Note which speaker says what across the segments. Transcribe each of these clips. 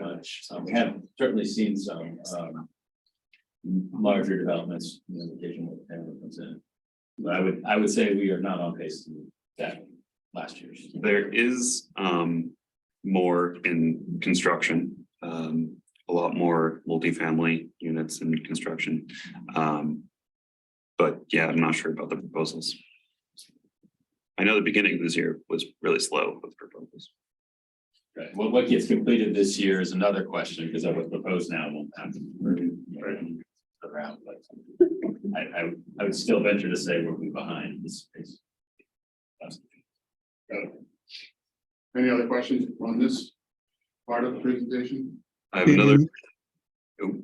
Speaker 1: much. Um, we have certainly seen some, um. Larger developments, you know, occasionally, everyone comes in. But I would, I would say we are not on pace to that last year's.
Speaker 2: There is um more in construction, um a lot more multifamily units in construction. Um but yeah, I'm not sure about the proposals. I know the beginning of this year was really slow with proposals.
Speaker 1: Right, what, what gets completed this year is another question, because I would propose now won't happen. for- for Around, but I, I, would- I would still venture to say we're behind this space.
Speaker 3: Any other questions on this part of the presentation?
Speaker 2: I have another,
Speaker 4: Stephen,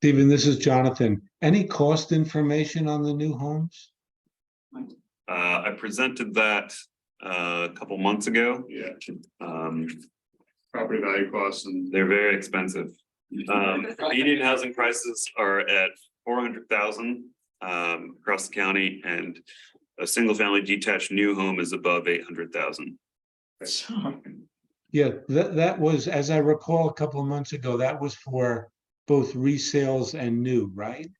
Speaker 4: Stephen, this is Jonathan. Any cost information on the new homes?
Speaker 2: uh I presented that uh a couple months ago.
Speaker 3: Yeah,
Speaker 2: Um
Speaker 3: property value costs and.
Speaker 2: they're very expensive. Um, median housing prices are at four hundred thousand um across the county and a single family detached new home is above eight hundred thousand.
Speaker 4: Yeah, that, that was, as I recall, a couple of months ago, that was for both resales and new, right?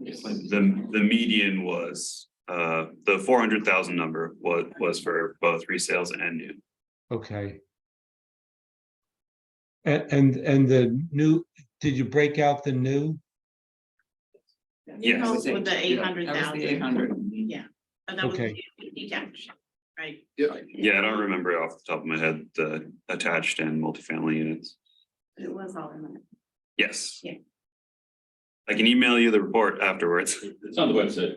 Speaker 2: The the median was uh the four hundred thousand number was was for both resales and new.
Speaker 4: Okay. And, and, and the new, did you break out the new?
Speaker 2: Yes.
Speaker 5: New homes with the eight hundred
Speaker 6: Eight
Speaker 5: thousand,
Speaker 6: hundred.
Speaker 5: yeah. And that was
Speaker 4: Okay.
Speaker 5: detached, right?
Speaker 2: Yeah, I don't remember off the top of my head the attached and multifamily units.
Speaker 5: It was all in there.
Speaker 2: Yes.
Speaker 5: Yeah.
Speaker 2: I can email you the report afterwards.
Speaker 1: It's on the website.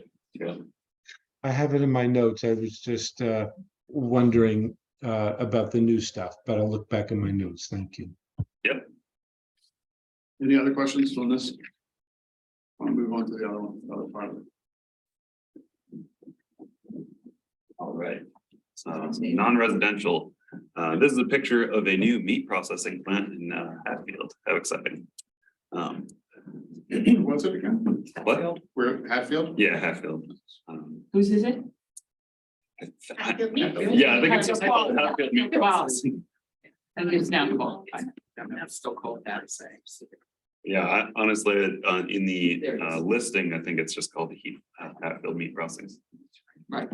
Speaker 4: I have it in my notes. I was just, uh, wondering, uh, about the new stuff, but I'll look back in my notes. Thank you.
Speaker 3: Any other questions on this? Want to move on to the other one, other part of it?
Speaker 2: All right. Uh, non-residential, uh, this is a picture of a new meat processing plant in uh, Hatfield, how exciting. Um,
Speaker 3: What's it again?
Speaker 2: What?
Speaker 3: We're at Hatfield?
Speaker 2: Yeah, Hatfield. Um,
Speaker 6: Whose is it?
Speaker 2: I- I-
Speaker 5: Hatfield meat.
Speaker 2: Yeah, I think it's just called Hatfield Meat Processing.
Speaker 6: I think it's now called. I don't know, it's still called that, so.
Speaker 2: Yeah, I- honestly, uh, in the
Speaker 6: There it
Speaker 2: uh,
Speaker 6: is.
Speaker 2: listing, I think it's just called the Heath, Hatfield Meat Processing.
Speaker 6: Right.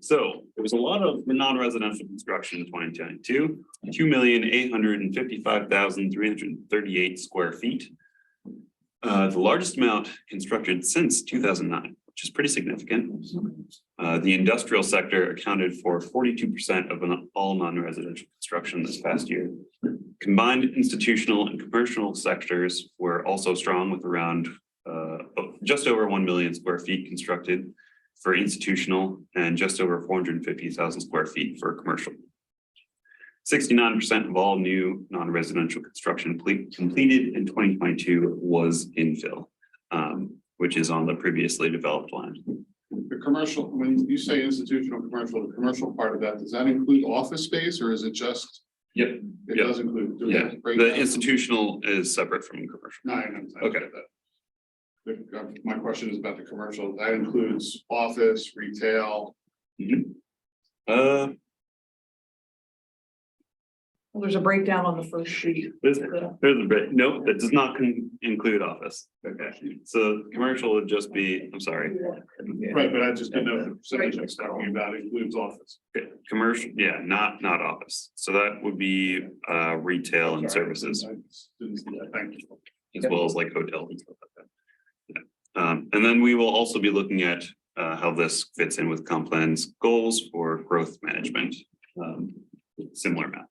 Speaker 2: So there was a lot of non-residential construction in twenty twenty-two, two million eight hundred and fifty-five thousand three hundred and thirty-eight square feet. Uh, the largest amount constructed since two thousand nine, which is pretty significant. Uh, the industrial sector accounted for forty-two percent of an- all non-residential construction this past year. Combined institutional and commercial sectors were also strong with around uh, just over one million square feet constructed for institutional and just over four hundred and fifty thousand square feet for commercial. Sixty-nine percent of all new non-residential construction ple- completed in twenty twenty-two was infill, um, which is on the previously developed land.
Speaker 3: The commercial, when you say institutional, commercial, the commercial part of that, does that include office space or is it just?
Speaker 2: Yep,
Speaker 3: It
Speaker 2: yep.
Speaker 3: does include. do we
Speaker 2: Yeah,
Speaker 3: break
Speaker 2: the
Speaker 3: down?
Speaker 2: institutional is separate from commercial.
Speaker 3: No, I understand. I
Speaker 2: Okay.
Speaker 3: get that. The- uh, My question is about the commercial. That includes office, retail.
Speaker 2: Uh,
Speaker 7: Well, There's a breakdown on the first sheet.
Speaker 2: there's, there's a bit, no, that does not con- include office. Okay, so commercial would just be, I'm sorry,
Speaker 3: Right, but I just didn't know if the percentage I was talking about includes office.
Speaker 2: commercial, yeah, not, not office. So that would be, uh, retail and
Speaker 3: Sorry,
Speaker 2: services.
Speaker 3: I just didn't see that. Thank you.
Speaker 2: as well as like hotels and stuff like that. Yeah. Um, and then we will also be looking at uh how this fits in with Complan's goals for growth management. Um, similar map.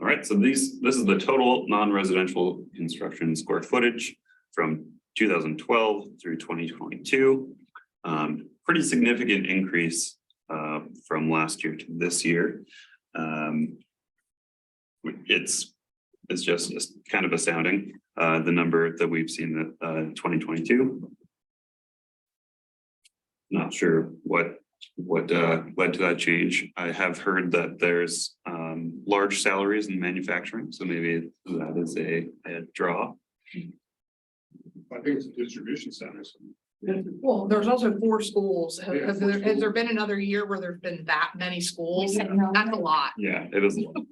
Speaker 2: All right, so these, this is the total non-residential construction square footage from two thousand twelve through twenty twenty-two. Um, pretty significant increase uh from last year to this year. Um. It's it's just it's kind of astounding, uh, the number that we've seen, uh, twenty twenty-two. Not sure what, what, uh, led to that change. I have heard that there's, um, large salaries in manufacturing, so maybe that is a, a draw.
Speaker 3: I think it's distribution centers.
Speaker 7: Well, there's also four schools. Have-
Speaker 3: Yeah,
Speaker 7: Has
Speaker 3: four
Speaker 7: there, has there
Speaker 3: schools.
Speaker 7: been another year where there's been that many schools?
Speaker 2: Yeah, it is, a lot.